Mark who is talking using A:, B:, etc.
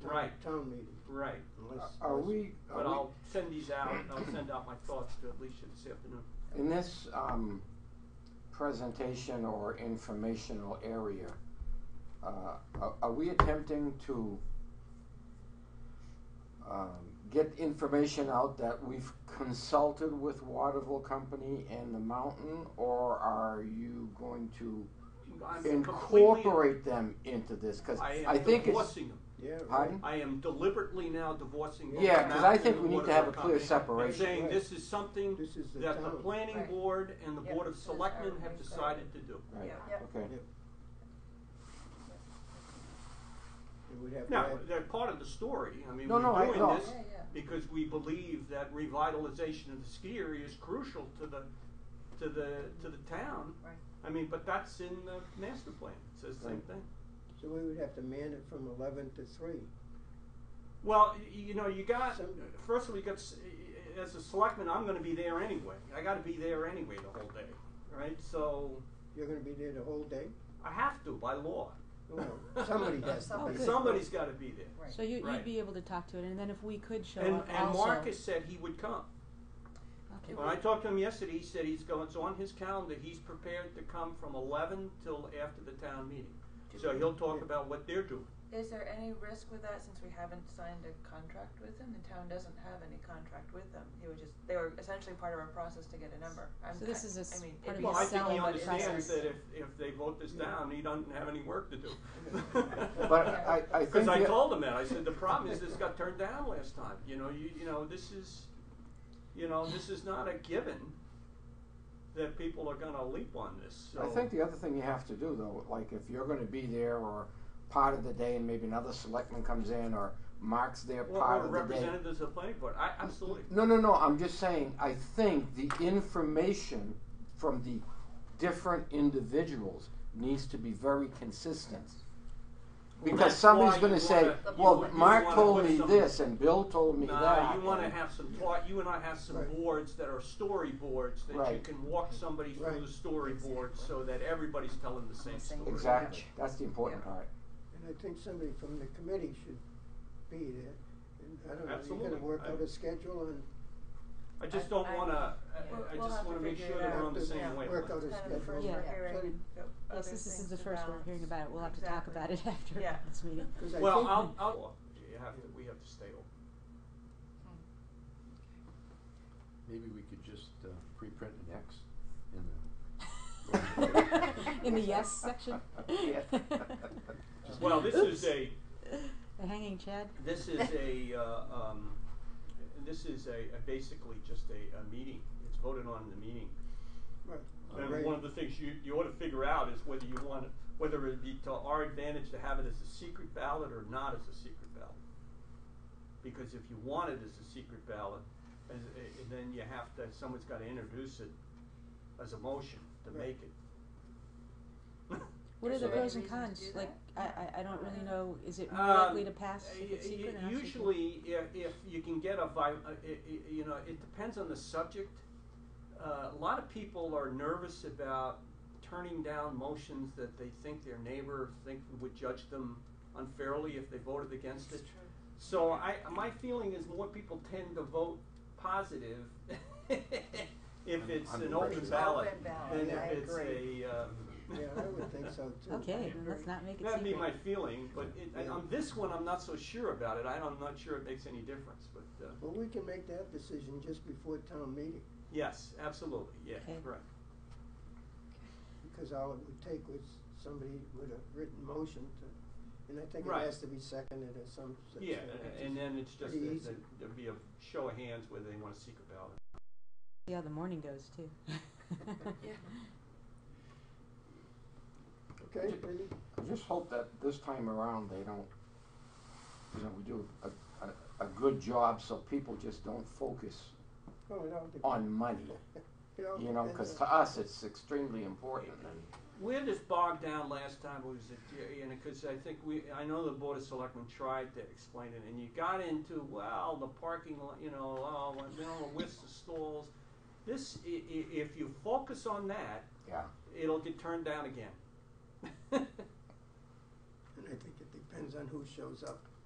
A: town-
B: Right.
A: town meeting.
B: Right.
A: Unless-
C: Are
A: unless-
C: we,
B: But
C: are
B: I'll send these out, and I'll send out my thoughts to Alicia this afternoon.
C: we, in this, um, presentation or informational area, uh, are, are we attempting to, um, get information out that we've consulted with Waterville Company and the mountain, or are you going to
B: I'm completely-
C: incorporate them into this? Cause
B: I
C: I
B: am
C: think it's,
B: divorcing them.
A: Yeah. right.
C: pardon?
B: I am deliberately now divorcing. both
C: Yeah,
B: the
C: 'cause I
B: mountain
C: think
B: and
C: we
B: the
C: need to have a
B: water
C: clear
B: company,
C: separation.
B: And saying
A: Right.
B: this is something
A: This is the
B: that the
A: town.
B: planning
D: Right.
B: board and the
D: Yep.
B: board of
D: Says
B: selectmen
D: everything.
B: have decided to do.
C: Right,
D: Yeah.
C: okay.
A: It would have to
B: Now,
A: add-
B: they're part of the story, I mean,
C: No, no, I-
B: we're
C: no.
B: doing this
D: Yeah, yeah.
B: because we believe that revitalization of the ski area is crucial to the, to the, to the town.
D: Right.
B: I mean, but that's in the master plan, it says the same
C: Right.
B: thing.
A: So we would have to man it from eleven to three.
B: Well, y- you know, you got,
A: Some-
B: first of all, you got, s- as a selectman, I'm gonna be there anyway, I gotta be there anyway the whole day, right? So,
A: You're gonna be there the whole day?
B: I have to by law.
A: Well, somebody has to be there.
B: Somebody's gotta be there.
D: Right.
E: So you,
B: Right.
E: you'd be able to talk to it, and then if we could show
B: And,
E: up
B: and
E: also.
B: Marcus said he would come.
E: Okay.
B: When I talked to him yesterday, he said he's going, it's on his calendar, he's prepared to come from eleven till after the town meeting. So he'll talk about what they're doing.
D: Is there any risk with that since we haven't signed a contract with them? The town doesn't have any contract with them. He was just, they were essentially part of our process to get a number. I'm
E: So this
D: ki-
E: is a s-
D: I mean,
E: part
D: it'd
E: of
D: be
E: your
B: Well, I think he
E: selling
D: selling
B: understands
E: process.
B: that if, if they vote this down, he doesn't have any work to do.
C: But
D: Yeah.
C: I, I think.
B: Cause I
C: the-
B: told him that, I said, the problem is this got turned down last time, you know, you, you know, this is, you know, this is not a given that people are gonna leap on this, so.
C: I think the other thing you have to do though, like if you're gonna be there or part of the day and maybe another selectman comes in or marks their
B: Or-
C: part
B: or
C: of the day.
B: representatives of the planning board, I, absolutely.
C: No, no, no, I'm just saying, I think the information from the different individuals needs to be very consistent. Because
B: that's
C: somebody's
B: why
C: gonna
B: you
C: say,
B: wanna- you
C: well,
B: wanna- you
C: Mark
B: wanna
C: told
B: put
C: me
B: some-
C: this and Bill told me that.
B: Nah, you wanna
C: and-
B: have some talk, you and I have some
A: Right.
B: boards that are storyboards, that you
C: Right.
B: can walk somebody through
A: Right.
B: the storyboard so that everybody's telling the same
D: Same.
B: story.
C: Exactly, that's the important
D: Yeah.
C: part.
A: And I think somebody from the committee should be there. And I don't know, you're
B: Absolutely.
A: gonna work out
B: I-
A: a schedule and
B: I just don't
D: I-
B: wanna, I-
D: yeah.
B: I
D: We'll
B: just
D: have
B: wanna
D: to
B: make
D: figure
B: sure
D: it
B: that we're
D: out.
B: on the
D: Yeah.
B: same
A: work out
B: wavelength.
A: a
D: It's kind of the
A: schedule.
D: first
E: Yeah.
D: we're hearing.
E: Yes, this is the first we're hearing about it. We'll have to talk about it after
D: Yeah.
E: this meeting.
A: 'Cause I
B: Well,
A: think-
B: I'll, I'll, you have to, we have to stay open.
F: Maybe we could just uh, pre-print an X in the.
E: In the yes section.
C: Yes.
B: Well, this is a,
E: The hanging Chad.
B: this is a, uh, um, this is a, a basically just a, a meeting, it's voted on in the meeting.
A: Right.
B: And
A: Right.
B: one of the things you, you ought to figure out is whether you want, whether it'd be to our advantage to have it as a secret ballot or not as a secret ballot. Because if you want it as a secret ballot, as, eh, then you have to, someone's gotta introduce it as a motion to
A: Right.
B: make it.
E: What are the
C: Is there
E: pros
D: any
E: and
D: reason to
E: cons?
D: do
E: Like, I,
D: that? Uh,
E: I, I don't really know. Is it more
B: Um,
E: likely to pass
B: y-
E: if it's
B: y-
E: secret? or not secret?
B: Usually, if, if you can get a vi- uh, i- i- you know, it depends on the subject. Uh, a lot of people are nervous about turning down motions that they think their neighbor think would judge them unfairly if they voted against it. So I, my feeling is more people tend to vote positive if
F: I'm-
B: it's
F: I'm
B: an
F: with
B: open
F: you.
B: ballot
D: Open ballot,
B: than
A: I
B: if it's
D: agree.
B: a. um,
A: Yeah, I would think so too.
E: Okay, then let's not make it
B: That'd
E: secret.
B: be my feeling, but it, I- on this one, I'm not so sure about it. I, I'm not sure it makes any difference, but, uh,
A: Well, we can make that decision just before town meeting,
B: yes, absolutely, yeah,
E: Okay.
B: right.
A: because all it would take was somebody with a written motion to, and I think it
B: Right.
A: has to be seconded or some such.
B: Yeah,
A: thing,
B: a-
A: which
B: and
A: is-
B: then it's just,
A: pretty
B: that-
A: easy.
B: that there'd be a show of hands whether they want a secret ballot.
E: See how the morning goes too.
D: Yeah.
A: Okay, Randy?
C: I just hope that this time around they don't, you know, we do a, a, a good job so people just don't focus
A: Oh, it all depends.
C: on money,
A: It all
C: you know,
A: depends
C: because
A: on-
C: to us it's extremely important. And
B: Where this bogged down last time was, that, you know, because I think we, I know the Board of Selectmen tried to explain it, and you got into, well, the parking lot, you know, oh, well, you know, the list of stalls. This, i- i- if you focus on that,
C: yeah,
B: it'll get turned down again.
A: And I think it depends on who shows up.